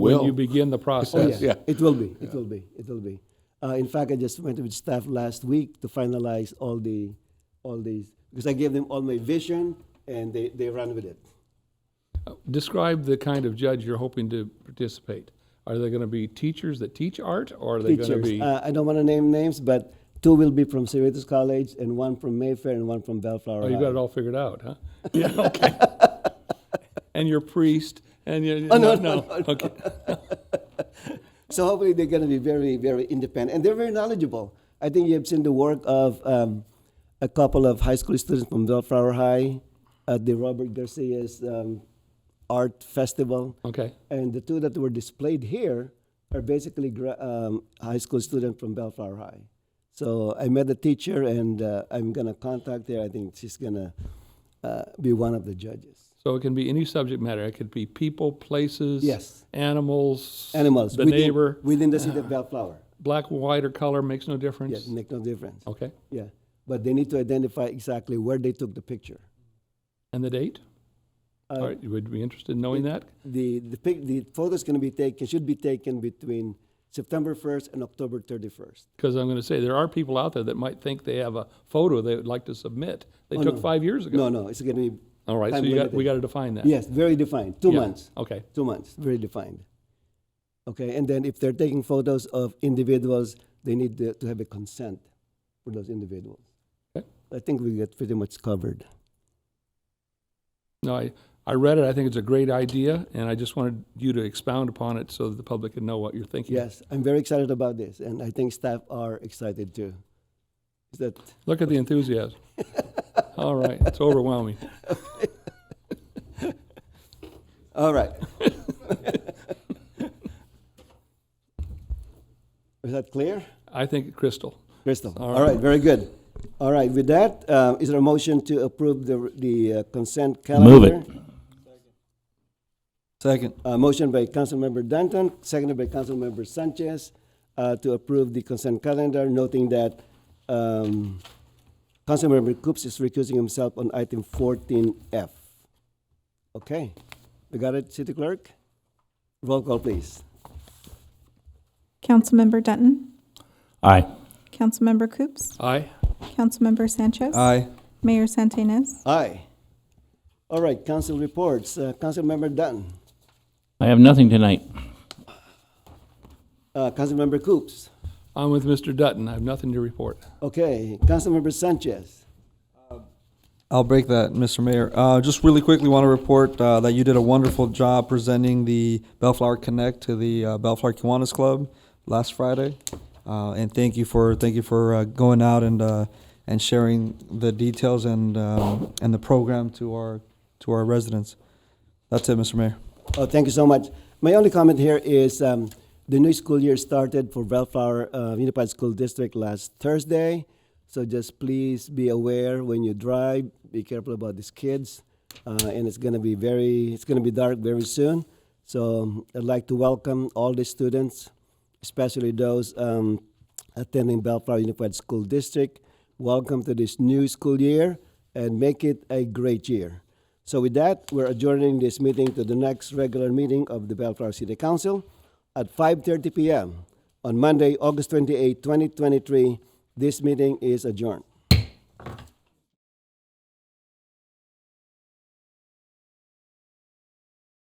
when you Will. begin the Oh, process. Yes. Yeah. It will be, it will be, it will be. Uh, in fact, I just went with staff last week to finalize all the, all these, because I gave them all my vision and they, they ran with it. Describe the kind of judge you're hoping to participate. Are they going to be teachers that teach art, or are they going to Teachers, be? uh, I don't want to name names, but two will be from Cerritos College and one from Mayfair and one from Bellflower Oh, you got it High. all figured out, huh? Yeah, okay. and your priest, and your, Oh, no, no, no, okay. So hopefully they're going to be very, very independent and they're very knowledgeable. I think you have seen the work of um, a couple of high school students from Bellflower High at the Robert Garcia's um, Art Festival. okay, And the two that were displayed here are basically gra- um, high school students from Bellflower High. So I met the teacher, and uh, I'm gonna contact her. I think she's gonna uh, be one of the judges. So it can be any subject matter. It could be people, places, Yes. animals, Animals. the within, neighbor, within the city of Bellflower. black, white, or color makes no Yeah, difference. make no difference. Okay, Yeah, but they need to identify exactly where they took the picture. and the date. Uh, All right, you would be interested in knowing that. The the pic, the photos gonna be taken should be taken between September 1st and October 31st. Because I'm going to say there are people out there that might think they have a photo they would like to submit. They Oh, took no. five years ago. No, no, it's gonna be All right, so time you got, we limited. got to define that. yes, very defined, two Yeah, months. Okay. two months, very defined. Okay, and then if they're taking photos of individuals, they need to, to have a consent for those individuals. Okay. I think we get pretty much covered. No, I, I read it. I think it's a great idea, and I just wanted you to expound upon it so that the public can know what you're thinking. Yes, I'm very excited about this, and I think staff are excited too. Is that Look at the enthusiasm. All right, it's overwhelming. all right? Is that clear, I think crystal. Crystal? All all right. right, very good. All right, with that, uh, is there a motion to approve the the uh, consent calendar? Move it. Second. Uh, motion by Councilmember Danton, seconded by Councilmember Sanchez, uh, to approve the consent calendar, noting that, um, Councilmember Coops is recusing himself on item fourteen F. Okay, we got it, City Clerk? Roll call, please. Councilmember Denton, Aye. Councilmember Coops, Aye. Councilmember Sanchez, Aye. Mayor Santinez. Aye. All right, council reports, uh, Councilmember Dunn, I have nothing tonight. uh, Councilmember Coops. I'm with Mr. Dutton. I have nothing to report. Okay, Councilmember Sanchez. I'll break that, Mr. Mayor. Uh, just really quickly want to report, uh, that you did a wonderful job presenting the Bellflower Connect to the, uh, Bellflower Kiwanis Club last Friday. Uh, and thank you for, thank you for, uh, going out and, uh, and sharing the details and, um, and the program to our, to our residents. That's it, Mr. Mayor. Oh, thank you so much. My only comment here is um, the new school year started for Bellflower uh, Unified School District last Thursday. So just please be aware when you drive, be careful about these kids. Uh, and it's going to be very, it's going to be dark very soon. So um, I'd like to welcome all the students, especially those um, attending Bellflower Unified School District. Welcome to this new school year and make it a great year. So with that, we're adjourning this meeting to the next regular meeting of the Bellflower City Council at 5:30 p.m. on Monday, August 28, 2023. This meeting is adjourned.